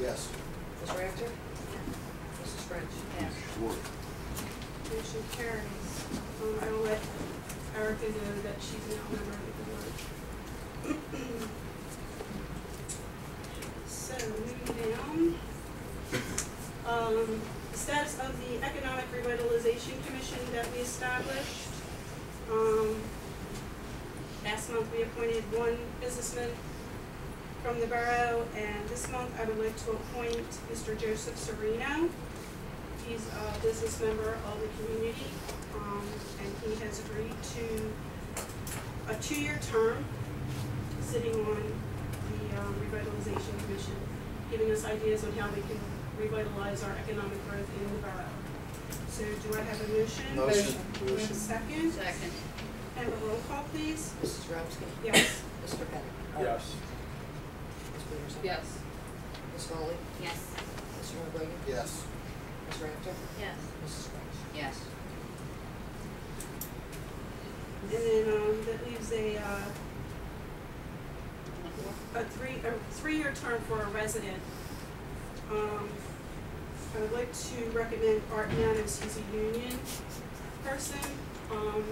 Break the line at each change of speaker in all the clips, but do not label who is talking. Yes.
Ms. Rafter? Mrs. French?
Yes.
Motion carries. Um, I will let Erica know that she's now a member of the board. So, moving down. Um, the status of the Economic Revitalization Commission that we established. Um, last month we appointed one businessman from the borough, and this month I would like to appoint Mr. Joseph Serino. He's a business member of the community, um, and he has agreed to a two-year term sitting on the um, revitalization commission, giving us ideas on how we can revitalize our economic growth in the borough. So do I have a motion?
Motion.
Do I have a second?
Second.
And a roll call, please?
Mrs. Drowsky?
Yes.
Mr. Pettit?
Yes.
Ms. Peterson?
Yes.
Ms. Foley?
Yes.
Mr. Longoria?
Yes.
Ms. Rafter?
Yes.
Mrs. French?
Yes.
And then, um, that leaves a, uh, a three, a three-year term for a resident. Um, I would like to recommend Art Nanas, he's a union person, um,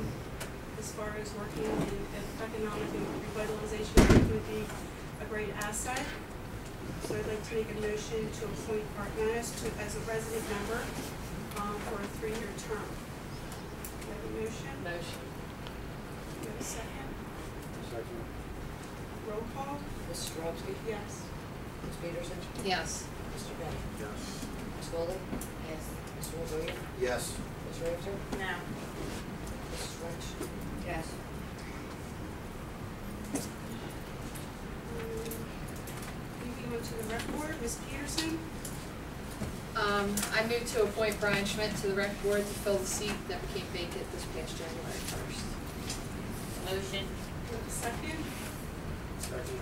as far as working in in economic and revitalization, he would be a great asset. So I'd like to make a motion to appoint Art Nanas to, as a resident member, um, for a three-year term. Do I have a motion?
Motion.
Do I have a second?
Second.
Roll call?
Mrs. Drowsky?
Yes.
Ms. Peterson?
Yes.
Mr. Pettit?
Yes.
Ms. Foley?
Yes.
Mr. Longoria?
Yes.
Ms. Rafter?
No.
Mrs. French?
Yes.
Moving on Mm, to the rec board, Ms. Peterson,
Um, I moved to appoint Brian Schmidt to the rec board to fill the seat that became vacant this past January first.
Motion.
do I have a second?
Second.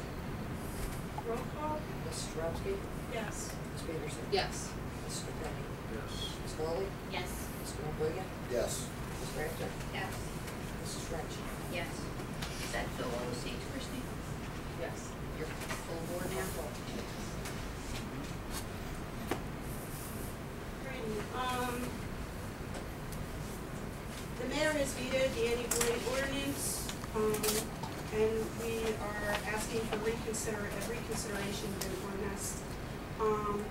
Roll call?
Mrs. Drowsky?
Yes.
Ms. Peterson?
Yes,
Mr. Pettit?
Yes.
Ms. Foley?
Yes.
Mr. Longoria?
Yes.
Ms. Rafter?
Yes.
Mrs. French?
Yes. Is that fill all the seats, Christie?
yes.
You're full board now?
Great. Um, the mayor has vetoed the anti-bullying ordinance, um, and we are asking for reconsider, a reconsideration of the ordinance. Um,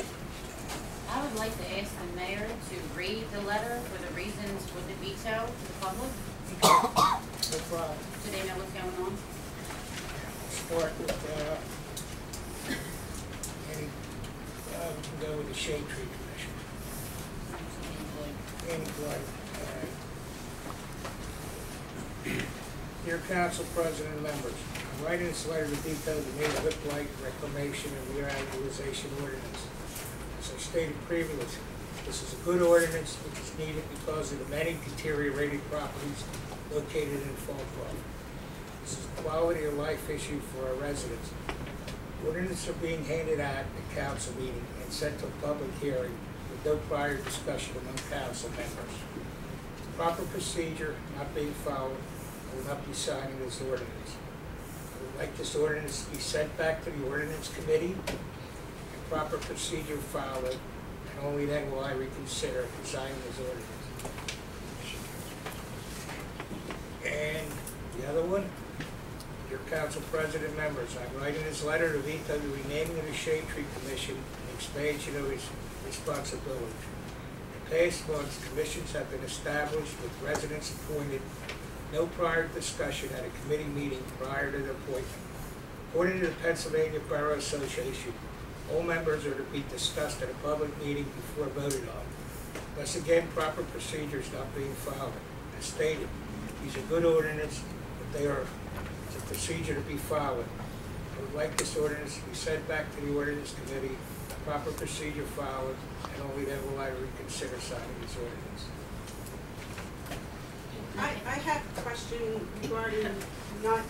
I would like to ask the mayor to read the letter for the reasons for the veto to the public.
No problem.
Do they know what's going on?
start with, uh, any, uh, we can go with the shade tree commission, any blight, uh, Dear uh, council president and members, I'm writing this letter to veto the neighborhood blight reclamation and revitalization ordinance. As I stated previously, this is a good ordinance which is needed because of the many deteriorated properties located in Fallbrook. This is a quality of life issue for our residents. Ordinance are being handed out at council meeting and sent to public hearing with no prior discussion among council members. Proper procedure not being followed, I will not be signing this ordinance. I would like this ordinance to be sent back to the ordinance committee, and proper procedure followed, and only then will I reconsider signing this ordinance. And the other one, your council president members, I'm writing this letter to veto the renaming of the Shade Tree Commission and expansion of its responsibility. In past months, commissions have been established with residents appointed, no prior discussion at a committee meeting prior to their appointment. According to the Pennsylvania Borough Association, all members are to be discussed at a public meeting before voted on. Thus again, proper procedures not being followed. As stated, these are good ordinance, but they are, it's a procedure to be followed. I would like this ordinance to be sent back to the ordinance committee, proper procedure followed, and only then will I reconsider signing this ordinance.
I, I have a question regarding not